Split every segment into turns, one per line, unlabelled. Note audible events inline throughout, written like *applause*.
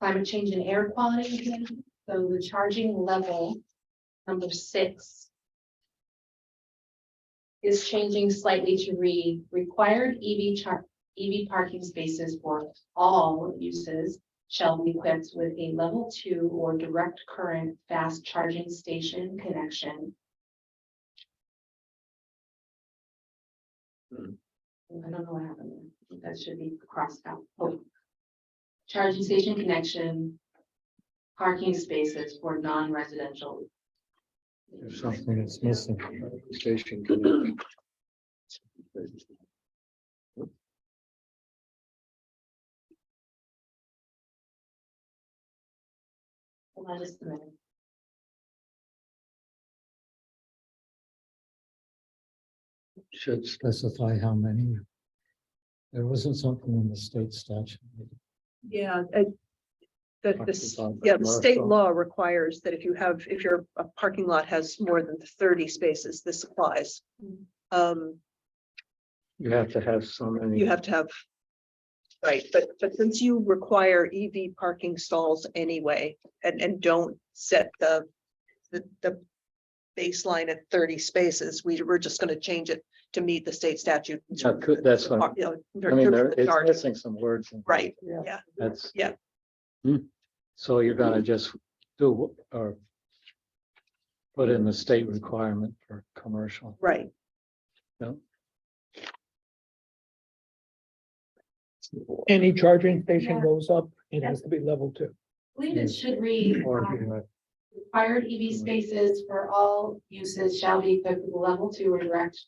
climate change and air quality again, so the charging level, number six. Is changing slightly to read required EV char, EV parking spaces for all uses. Shall be equipped with a level two or direct current fast charging station connection.
Hmm.
I don't know what happened, there. that should be crossed out. Oh. Charging station connection. Parking spaces for non-residential.
There's
something that's missing.
Station. connection.
Hold on just a minute.
Should
specify how many. There wasn't something in the state statute.
Yeah, uh, the,
Talking
the, s-
about
yeah, the state
commercial.
law requires that if you have, if your uh, parking lot has more than thirty spaces, this applies.
Mm.
Um,
you have to have so many.
you have to have. Right, but, but since you require EV parking stalls anyway, and, and don't set the, the, the. Baseline at thirty spaces, we, we're just gonna change it to meet the state statute. in
Yeah,
terms
could-
of
that's
the
what-
par- you know, in
I mean,
terms
there
of the
it's
charge.
missing some words. in-
Right,
Yeah.
yeah,
That's.
Yeah.
Hmm. So you're gonna just do wh- or. Put in the state requirement for commercial.
right,
Any charging station
Yeah.
goes up, it has to be level two.
I believe it should read. um, Required EV spaces for all uses shall be equipped with a level two or direct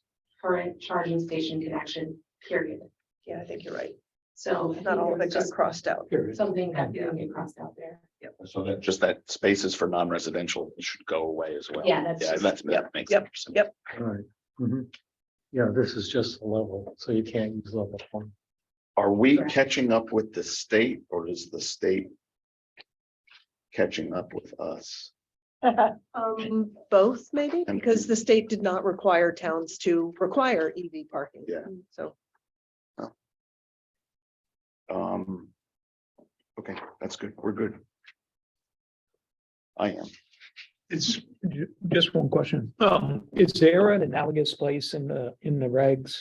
current charging station connection, period.
yeah, I think you're right,
So. I
not all of
think there's
it got
just
crossed out.
Something that didn't get crossed out there.
So that, just that spaces for non-residential should go away as well.
Yeah, that's
Yeah,
just-
that's,
yep,
that makes.
yep,
sense.
yep.
Right. Mhm. Yeah, this is just a level, so you can't use level one.
Are we
Correct.
catching up with the state or is the state? Catching up with us?
Um, both maybe,
And-
because the state did not require towns to require EV parking.
Yeah.
So,
Um. Okay, that's good. We're good. I am.
It's ju- just one question. Um, is there an analogous place in the, in the regs?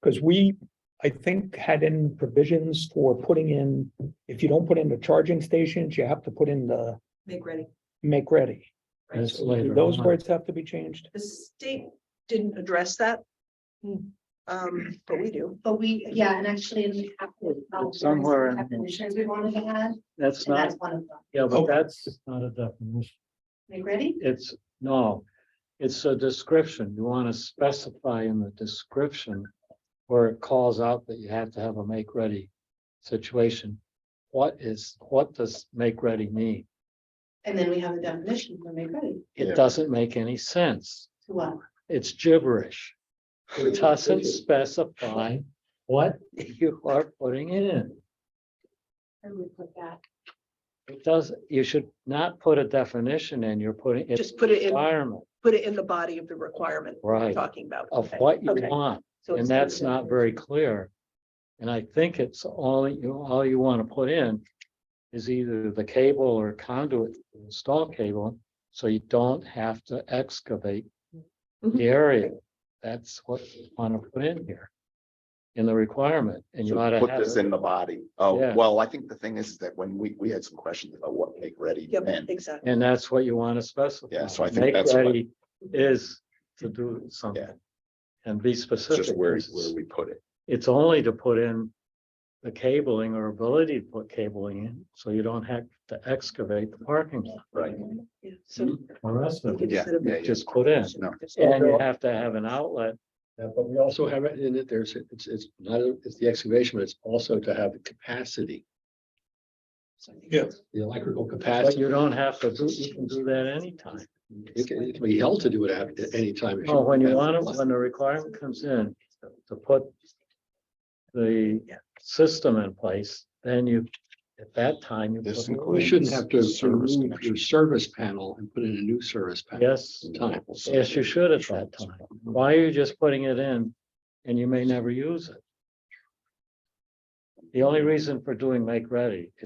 Because we, I think, had in provisions for putting in, if you don't put in the charging stations, you have to put in the
make ready.
make ready.
That's
So
later
do Those
on.
words have to be changed.
The state didn't address that. Hmm. Um, but we do.
But we, yeah, and actually in the capital.
It's somewhere in-
Definitions we wanted to add,
That's
and
not,
that's one of them.
yeah, but
Okay.
that's,
Not a definition.
Are you ready?
it's, no. It's a description. You want to specify in the description. Where it calls out that you have to have a make ready situation. What is, what does make ready mean?
And then we have a definition for make ready
It
Yeah.
doesn't make any sense.
to what?
It's gibberish. It doesn't specify what *laughs* you are putting in.
And we put that.
It does, you should not put a definition in, you're putting. it's
Just put it in-
Requirement,
Put it in the body of the requirement we're
right,
talking about.
of
Okay,
what you
okay.
want,
So
and
it's-
that's not very clear. And I think it's all you, all you want to put in is either the cable or conduit, install cable, so you don't have to excavate
Mhm.
the area. That's what you want to put in here. In the requirement, and you
So
ought to
Put
have.
this
it-
in the body. Oh,
Yeah.
well, I think the thing is that when we, we had some questions about what make ready
Yep,
meant.
exactly.
And that's what you want to specify.
Yeah, so I think
Make
that's what-
ready Is to do something. And be
It's
specific.
just where,
'cause it's-
where we put it.
It's only to put in the cabling or ability to put cabling in, so you don't have to excavate the parking lot.
Right.
Yeah, So.
The rest of it,
Yeah,
instead of-
yeah, yeah.
just put in.
No.
And you have to have an outlet.
Yeah, but we also have it in it, there's, it's, it's not, it's the excavation, but it's also to have the capacity,
Yeah.
the electrical
But
capacity.
you don't have to do, you can do that anytime.
It can, it can be held to do it at at any time. if
Oh, when you
have
want
less
it, when the requirement comes in to put the
Yeah.
system in place, then you, at that time. you
This
put it
includes-
You shouldn't have to
Service
remove your service panel and put in a new service
in.
panel.
Yes,
Time.
yes, you should at that time. Why are you just putting it in and you may never use it? The only reason for doing make ready is